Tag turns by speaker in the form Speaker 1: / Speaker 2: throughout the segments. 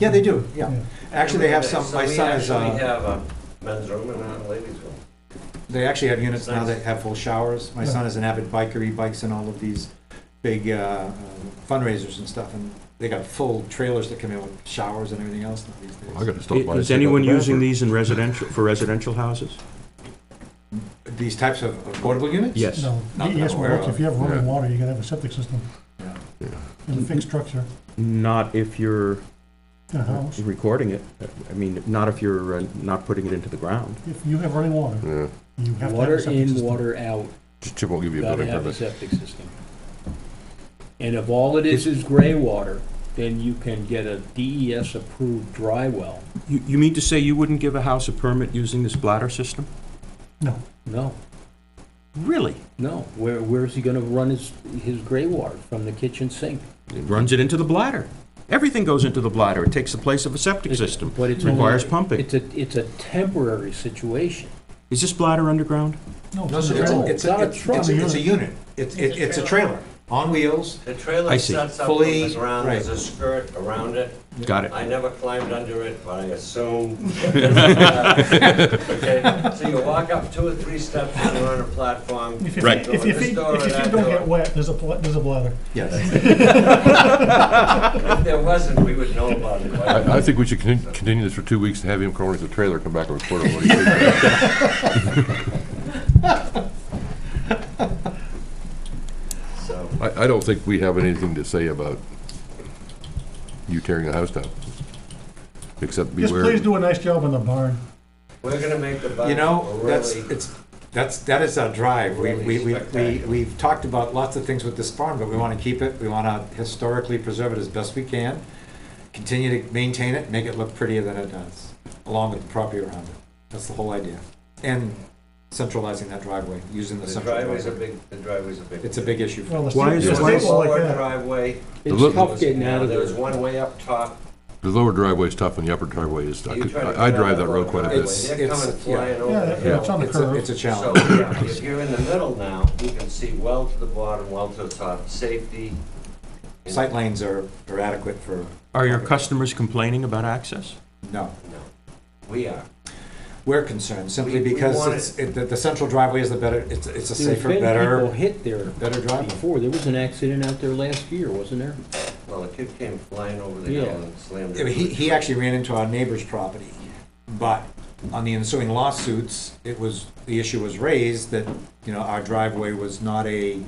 Speaker 1: Yeah, they do, yeah.
Speaker 2: Yeah.
Speaker 1: Actually, they have some,
Speaker 3: So
Speaker 1: my
Speaker 3: we
Speaker 1: son is,
Speaker 3: actually
Speaker 1: uh,
Speaker 3: have a men's room and a ladies' room.
Speaker 1: they actually have units now
Speaker 3: Nice.
Speaker 1: that have full showers. My
Speaker 2: Yeah.
Speaker 1: son is an avid biker, he bikes in all of these big uh, fundraisers and stuff, and they got full trailers that come in with showers and everything else now these
Speaker 4: I
Speaker 1: days.
Speaker 4: gotta stop by. and
Speaker 5: Is
Speaker 4: check out
Speaker 5: anyone
Speaker 4: the
Speaker 5: using
Speaker 4: bathroom.
Speaker 5: these in residential, for residential houses?
Speaker 1: These types of portable units?
Speaker 5: Yes.
Speaker 2: No,
Speaker 1: Not that I'm
Speaker 2: yes,
Speaker 1: aware
Speaker 2: well,
Speaker 1: of.
Speaker 2: if you have
Speaker 4: Yeah.
Speaker 2: running water, you're gonna have a septic system
Speaker 1: Yeah.
Speaker 2: and a fixed structure
Speaker 5: Not if you're
Speaker 2: in a house.
Speaker 5: recording it. I mean, not if you're uh, not putting it into the ground.
Speaker 2: If you have running water,
Speaker 4: Yeah,
Speaker 2: you have to have
Speaker 6: Water
Speaker 2: a septic
Speaker 6: in,
Speaker 2: system.
Speaker 6: water out,
Speaker 4: Chip won't give you a
Speaker 6: gotta
Speaker 4: building
Speaker 6: have a
Speaker 4: permit.
Speaker 6: septic system. And if all it is is gray water, then you can get a DES-approved dry well.
Speaker 5: You, you mean to say you wouldn't give a house a permit using this bladder system?
Speaker 2: No,
Speaker 6: No,
Speaker 5: Really?
Speaker 6: no, where, where is he gonna run his, his gray water? From the kitchen sink?
Speaker 5: It runs it into the bladder. Everything goes into the bladder. It takes the place of a septic system.
Speaker 6: But it's a-
Speaker 5: Requires pumping.
Speaker 6: It's a, it's a temporary situation.
Speaker 5: Is this bladder underground?
Speaker 1: No,
Speaker 2: no,
Speaker 1: so
Speaker 2: it's
Speaker 1: it's,
Speaker 2: all
Speaker 1: a- it's,
Speaker 6: Not a
Speaker 1: a- it's,
Speaker 6: truck.
Speaker 1: a- it's a unit. It's, it- it's a trailer, on wheels.
Speaker 3: The trailer
Speaker 5: I see.
Speaker 3: sets up from
Speaker 1: Fully-
Speaker 3: the ground,
Speaker 1: right.
Speaker 3: there's a skirt around it.
Speaker 5: Got it.
Speaker 3: I never climbed under it, but I assume. Okay, So you walk up two or three steps and you're on a platform.
Speaker 2: If you,
Speaker 5: Right.
Speaker 2: if, if, if,
Speaker 3: This
Speaker 2: if you
Speaker 3: door or that
Speaker 2: don't
Speaker 3: door.
Speaker 2: get wet, there's a, pla- there's a bladder.
Speaker 1: Yes.
Speaker 3: If there wasn't, we would know about it. but-
Speaker 4: I, I think we should con- continue this for two weeks to have him crawl into the trailer, come back and report on what he thinks.
Speaker 3: So,
Speaker 4: I, I don't think we have anything to say about you tearing the house down.
Speaker 2: Just
Speaker 4: Except beware.
Speaker 2: please do a nice job on the barn.
Speaker 3: we're gonna make the
Speaker 1: You
Speaker 3: budget
Speaker 1: know, that's,
Speaker 3: Oh, really,
Speaker 1: it's, that's, that is our drive. We, we, we, we,
Speaker 3: Really
Speaker 1: we've talked about lots of things with this farm, but we wanna keep it, we wanna historically preserve it as best we can, continue to maintain it, make it look prettier than it does, along with the property around it. That's the whole idea. And centralizing that driveway, using the
Speaker 3: the
Speaker 1: central
Speaker 3: driveway's a
Speaker 1: driveway.
Speaker 3: big, the driveway's a big.
Speaker 1: It's a big issue.
Speaker 2: Well, the state-
Speaker 5: Why is-
Speaker 2: the
Speaker 3: There's
Speaker 5: why
Speaker 2: state's
Speaker 3: a
Speaker 5: is-
Speaker 2: like
Speaker 3: forward
Speaker 2: that.
Speaker 3: driveway.
Speaker 4: look-
Speaker 6: It's tough getting out of
Speaker 3: There was
Speaker 6: there.
Speaker 3: one way up top.
Speaker 4: The lower driveway is tough and the upper driveway is, I
Speaker 3: You
Speaker 4: could-
Speaker 3: try to
Speaker 4: I I
Speaker 3: get out
Speaker 4: drive
Speaker 3: of
Speaker 4: that
Speaker 3: the
Speaker 4: road quite a
Speaker 3: driveway,
Speaker 4: bit.
Speaker 1: It's-
Speaker 3: They're
Speaker 1: it's-
Speaker 3: coming
Speaker 1: yeah.
Speaker 3: flying
Speaker 2: Yeah,
Speaker 3: over the
Speaker 2: that-
Speaker 3: hill.
Speaker 2: it's on the
Speaker 1: It's a,
Speaker 2: curve.
Speaker 1: it's a
Speaker 3: So,
Speaker 1: challenge.
Speaker 3: yeah, if you're in the middle now, you can see well to the bottom, well to the top, safety.
Speaker 1: Sight lanes are, are adequate for,
Speaker 5: Are your customers complaining about access?
Speaker 1: no.
Speaker 3: No, We are.
Speaker 1: We're concerned simply
Speaker 3: We- we
Speaker 1: because
Speaker 3: want
Speaker 1: it's, it, the, the central driveway is the better, it's, it's a
Speaker 6: There's
Speaker 1: safer,
Speaker 6: been people
Speaker 1: better,
Speaker 6: hit there
Speaker 1: better driveway.
Speaker 6: before. There was an accident out there last year, wasn't there?
Speaker 3: Well, a kid came flying over the
Speaker 6: Yeah.
Speaker 3: hill and slammed
Speaker 1: Yeah,
Speaker 3: it.
Speaker 1: but He, he actually ran into our neighbor's property, but on the ensuing lawsuits, it was, the issue was raised that, you know, our driveway was not a, I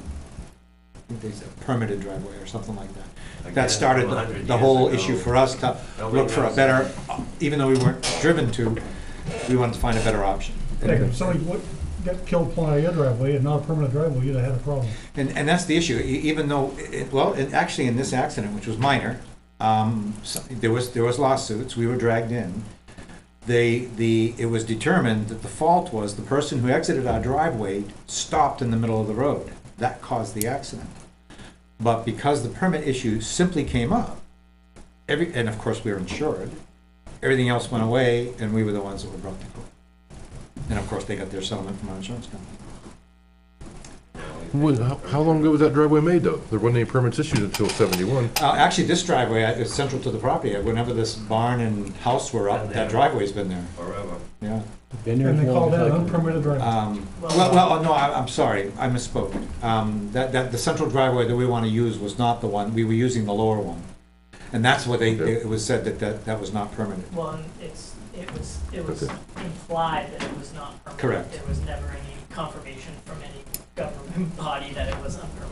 Speaker 1: think they said permitted driveway or something like that.
Speaker 3: Again,
Speaker 1: That started
Speaker 3: from a hundred
Speaker 1: the whole
Speaker 3: years ago.
Speaker 1: issue for us to
Speaker 3: Nobody
Speaker 1: look for a
Speaker 3: knows.
Speaker 1: better, even though we weren't driven to, we wanted to find a better option.
Speaker 2: Hey, if somebody would- got killed pulling out of your driveway and not a permanent driveway, you'd have had a problem.
Speaker 1: And, and that's the issue, E- even though, it- well, and actually in this accident, which was minor, um, so- there was, there was lawsuits, we were dragged in. They, the, it was determined that the fault was the person who exited our driveway stopped in the middle of the road. That caused the accident. But because the permit issue simply came up, every, and of course we were insured, everything else went away and we were the ones that were brought to court. And of course, they got their settlement from our insurance company.
Speaker 4: When- How how long ago was that driveway made, though? There wasn't any permits issued until seventy-one.
Speaker 1: Uh, actually, this driveway uh, is central to the property. Whenever this barn and house were up, that driveway's been there,
Speaker 3: Forever.
Speaker 1: yeah.
Speaker 6: Been there
Speaker 2: And
Speaker 6: as
Speaker 2: they call
Speaker 6: long as
Speaker 2: that
Speaker 6: I
Speaker 2: an
Speaker 6: can
Speaker 2: unpermitted driveway.
Speaker 1: Um, well, well, oh, no, I, I'm sorry, I misspoke. Um, that, that, the central driveway that we wanna use was not the one, we were using the lower one. And that's what they,
Speaker 4: Okay.
Speaker 1: it was said that, that, that was not permanent.
Speaker 7: Well, and it's, it was, it was
Speaker 4: Okay.
Speaker 7: implied that it was not permanent.
Speaker 1: Correct.
Speaker 7: There was never any confirmation from any government body that it was unpermitted.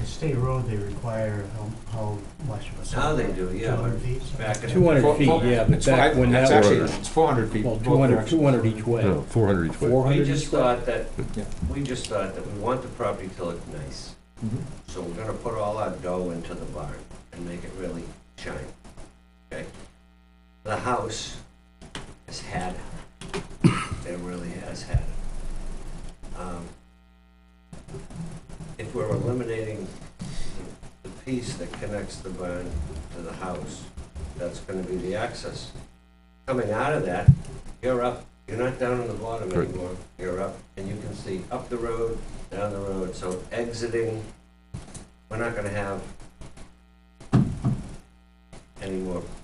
Speaker 8: The state road, they require how, how much of a
Speaker 3: Now
Speaker 8: setback?
Speaker 3: they do, yeah.
Speaker 8: 200 feet?
Speaker 3: Back in.
Speaker 6: Two
Speaker 1: Four-
Speaker 6: hundred feet,
Speaker 1: four-
Speaker 6: yeah, but
Speaker 1: it's fi-
Speaker 6: back when that
Speaker 1: It's
Speaker 6: was.
Speaker 1: actually, it's four hundred feet.
Speaker 6: Well,
Speaker 1: both
Speaker 6: 200,
Speaker 1: directions.
Speaker 6: 200 each way.
Speaker 4: No, four hundred each way.
Speaker 6: 400
Speaker 3: We just
Speaker 6: each way.
Speaker 3: thought that,
Speaker 1: Yeah.
Speaker 3: we just thought that we want the property to look nice.
Speaker 4: Mm-hmm.
Speaker 1: Mhm.
Speaker 3: So we're gonna put all our dough into the barn and make it really shine, okay? The house has had it. It really has had it. Um, If we're eliminating the piece that connects the barn to the house, that's gonna be the access. Coming out of that, you're up, you're not down on the bottom
Speaker 4: Right.
Speaker 3: anymore, you're up, and you can see up the road, down the road, so exiting, we're not gonna have any more